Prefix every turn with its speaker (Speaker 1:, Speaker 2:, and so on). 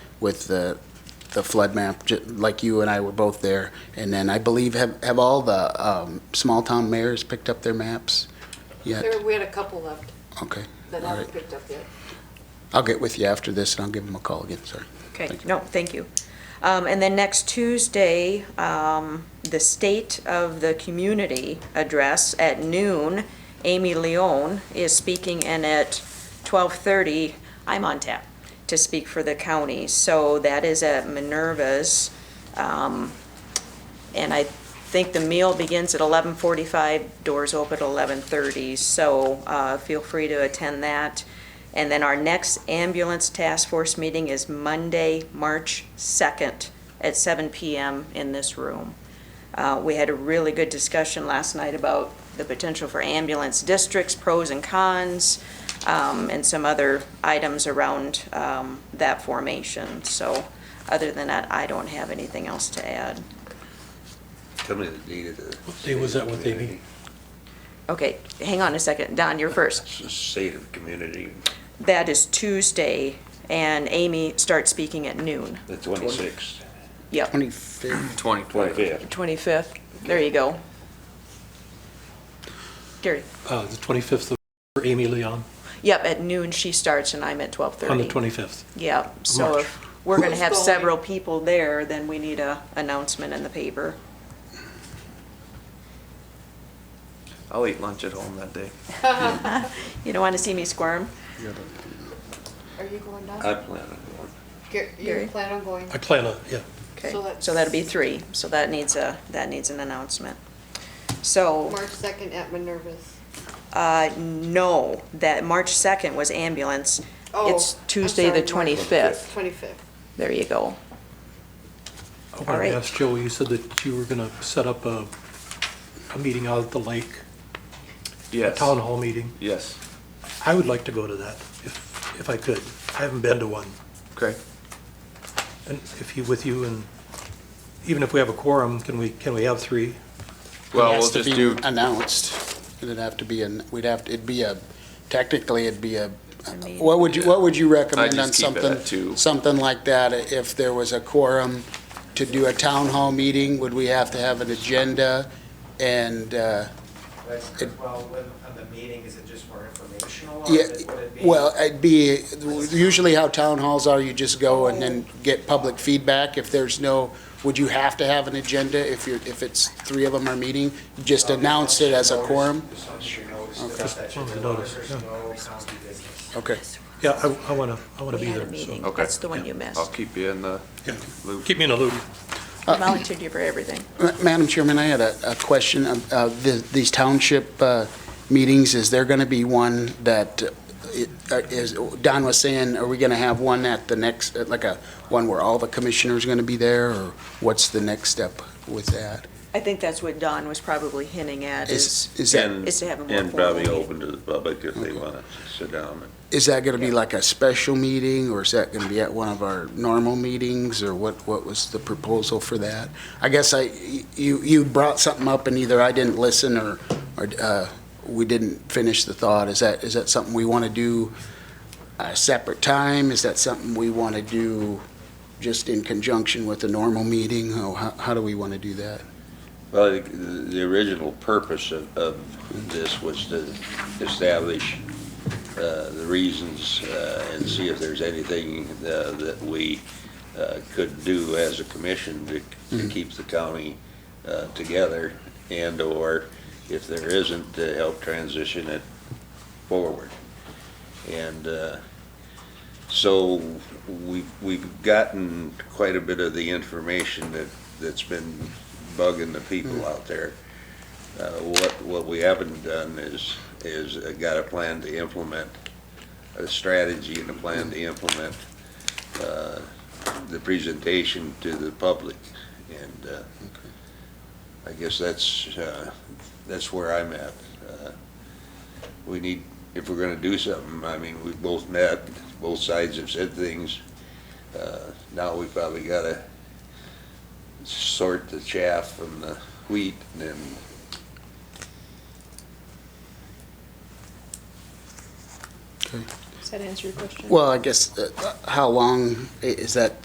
Speaker 1: with the, the flood map, ju- like you and I were both there. And then I believe, have, have all the um, small-town mayors picked up their maps yet?
Speaker 2: There, we had a couple left
Speaker 1: Okay,
Speaker 2: that
Speaker 1: All
Speaker 2: haven't
Speaker 1: right.
Speaker 2: picked up yet.
Speaker 1: I'll get with you after this, and I'll give them a call again, sorry.
Speaker 3: Okay,
Speaker 1: Thank
Speaker 3: no, thank you. Um, And then next Tuesday, um, the State of the Community Address at noon, Amy Leon is speaking, and at 12:30, I'm on tap to speak for the county. So that is at Minerva's, um, and I think the meal begins at 11:45, doors open at 11:30, so uh, feel free to attend that. And then our next ambulance task force meeting is Monday, March 2nd at 7 PM in this room. Uh, We had a really good discussion last night about the potential for ambulance districts, pros and cons, um, and some other items around um, that formation. So other than that, I don't have anything else to add.
Speaker 4: Tell me the date of the. What
Speaker 5: day was that? What day meeting?
Speaker 3: Okay, hang on a second. Don, you're first.
Speaker 4: State of community,
Speaker 3: That is Tuesday, and Amy starts speaking at noon.
Speaker 4: the twenty-sixth,
Speaker 3: Yep,
Speaker 1: 25th,
Speaker 4: twenty-fifth.
Speaker 3: 25th. There you go. Gary?
Speaker 5: Uh, The 25th of- for Amy Leon,
Speaker 3: Yep, at noon she starts and I'm at 12:30.
Speaker 5: on the 25th.
Speaker 3: Yep, so
Speaker 5: March.
Speaker 3: if we're going to have
Speaker 2: Who's going?
Speaker 3: several people there, then we need a announcement in the paper.
Speaker 6: I'll eat lunch at home that day.
Speaker 3: You don't want to see me squirm?
Speaker 2: Are you going
Speaker 4: I
Speaker 1: Uh,
Speaker 2: down?
Speaker 4: plan on going.
Speaker 2: Gar- You
Speaker 3: Gary?
Speaker 2: plan on going?
Speaker 5: I plan on, yeah.
Speaker 3: Okay,
Speaker 2: So that's-
Speaker 3: so that'd be three. So that needs a, that needs an announcement. So,
Speaker 2: March 2nd at Minerva's.
Speaker 3: uh, no, that March 2nd was ambulance.
Speaker 2: Oh,
Speaker 3: It's
Speaker 2: I'm
Speaker 3: Tuesday, the
Speaker 2: sorry, March-
Speaker 3: 25th.
Speaker 2: 25th.
Speaker 3: There you go.
Speaker 5: I wanted
Speaker 3: right.
Speaker 5: to ask Joe, you said that you were going to set up a, a meeting out at the lake, a
Speaker 6: Yes.
Speaker 5: town hall meeting.
Speaker 6: Yes.
Speaker 5: I would like to go to that, if, if I could. I haven't been to one.
Speaker 6: Okay.
Speaker 5: And if you, with you, and even if we have a quorum, can we, can we have three?
Speaker 6: Well,
Speaker 1: It has
Speaker 6: we'll
Speaker 1: to
Speaker 6: just
Speaker 1: be
Speaker 6: do,
Speaker 1: Announced, it'd have to be, an- we'd have, to. it'd be a, technically, it'd be a,
Speaker 3: a meeting.
Speaker 1: what would you, what would you recommend
Speaker 6: just
Speaker 1: on
Speaker 6: keep it
Speaker 1: something?
Speaker 6: at two.
Speaker 1: Something like that, if there was a quorum to do a town hall meeting, would we have to have an agenda? And, uh,
Speaker 7: That's,
Speaker 1: It-
Speaker 7: well, when, on the meeting, is it just more informational? or
Speaker 1: yeah,
Speaker 7: is it- would it be-
Speaker 1: well, it'd be, usually how town halls are, you just go and then get public feedback. If there's no, would you have to have an agenda if you're, if it's, three of them are meeting? Just announce it as a quorum?
Speaker 7: Just on your notice,
Speaker 1: Okay.
Speaker 7: just that you
Speaker 5: Just on the
Speaker 7: know
Speaker 5: notice,
Speaker 7: there's
Speaker 5: yeah.
Speaker 7: no county business.
Speaker 1: Okay.
Speaker 5: Yeah, I, I want to, I want to
Speaker 3: We
Speaker 5: be
Speaker 3: had
Speaker 5: there.
Speaker 3: a
Speaker 5: so-
Speaker 3: meeting.
Speaker 6: Okay.
Speaker 3: That's the one you
Speaker 6: I'll
Speaker 3: missed.
Speaker 6: keep you in the
Speaker 5: Yeah.
Speaker 6: loop.
Speaker 5: Keep me in a loop.
Speaker 3: I volunteered you for everything.
Speaker 1: Ma- Madam Chairman, I had a, a question. Um, uh, the- These township uh, meetings, is there going to be one that, uh, it- uh, is, Don was saying, are we going to have one at the next, uh, like a, one where all the commissioners are going to be there, or what's the next step with that?
Speaker 3: I think that's what Don was probably hinting at is,
Speaker 1: Is, is that,
Speaker 4: And-
Speaker 3: is to have a more
Speaker 4: And
Speaker 3: formal
Speaker 4: probably
Speaker 3: meeting.
Speaker 4: open to the public if they
Speaker 1: Okay.
Speaker 4: wanna sit down. and-
Speaker 1: is that going to be like a special meeting, or is that going to be at one of our normal meetings, or what, what was the proposal for that? I guess I, you, you brought something up, and either I didn't listen, or, or uh, we didn't finish the thought. Is that, is that something we want to do a separate time? Is that something we want to do just in conjunction with the normal meeting? How, how- how do we want to do that?
Speaker 4: Well, the, the original purpose of, of this was to establish, uh, the reasons, uh, and see if there's anything, uh, that we, uh, could do as a commission to, to keep the county, uh, together, and/or if there isn't, to help transition it forward. And, uh, so we, we've gotten quite a bit of the information that, that's been bugging the people out there. Uh, What, what we haven't done is, is uh, got a plan to implement, a strategy and a plan to implement uh, the presentation to the public. And uh, I guess that's, uh, that's where I'm at. Uh, We need, if we're gonna do something, I mean, we've both met, both sides have said things. Uh, Now we probably gotta sort the chaff from the wheat and then
Speaker 1: Well, I guess, uh, how long, i- is that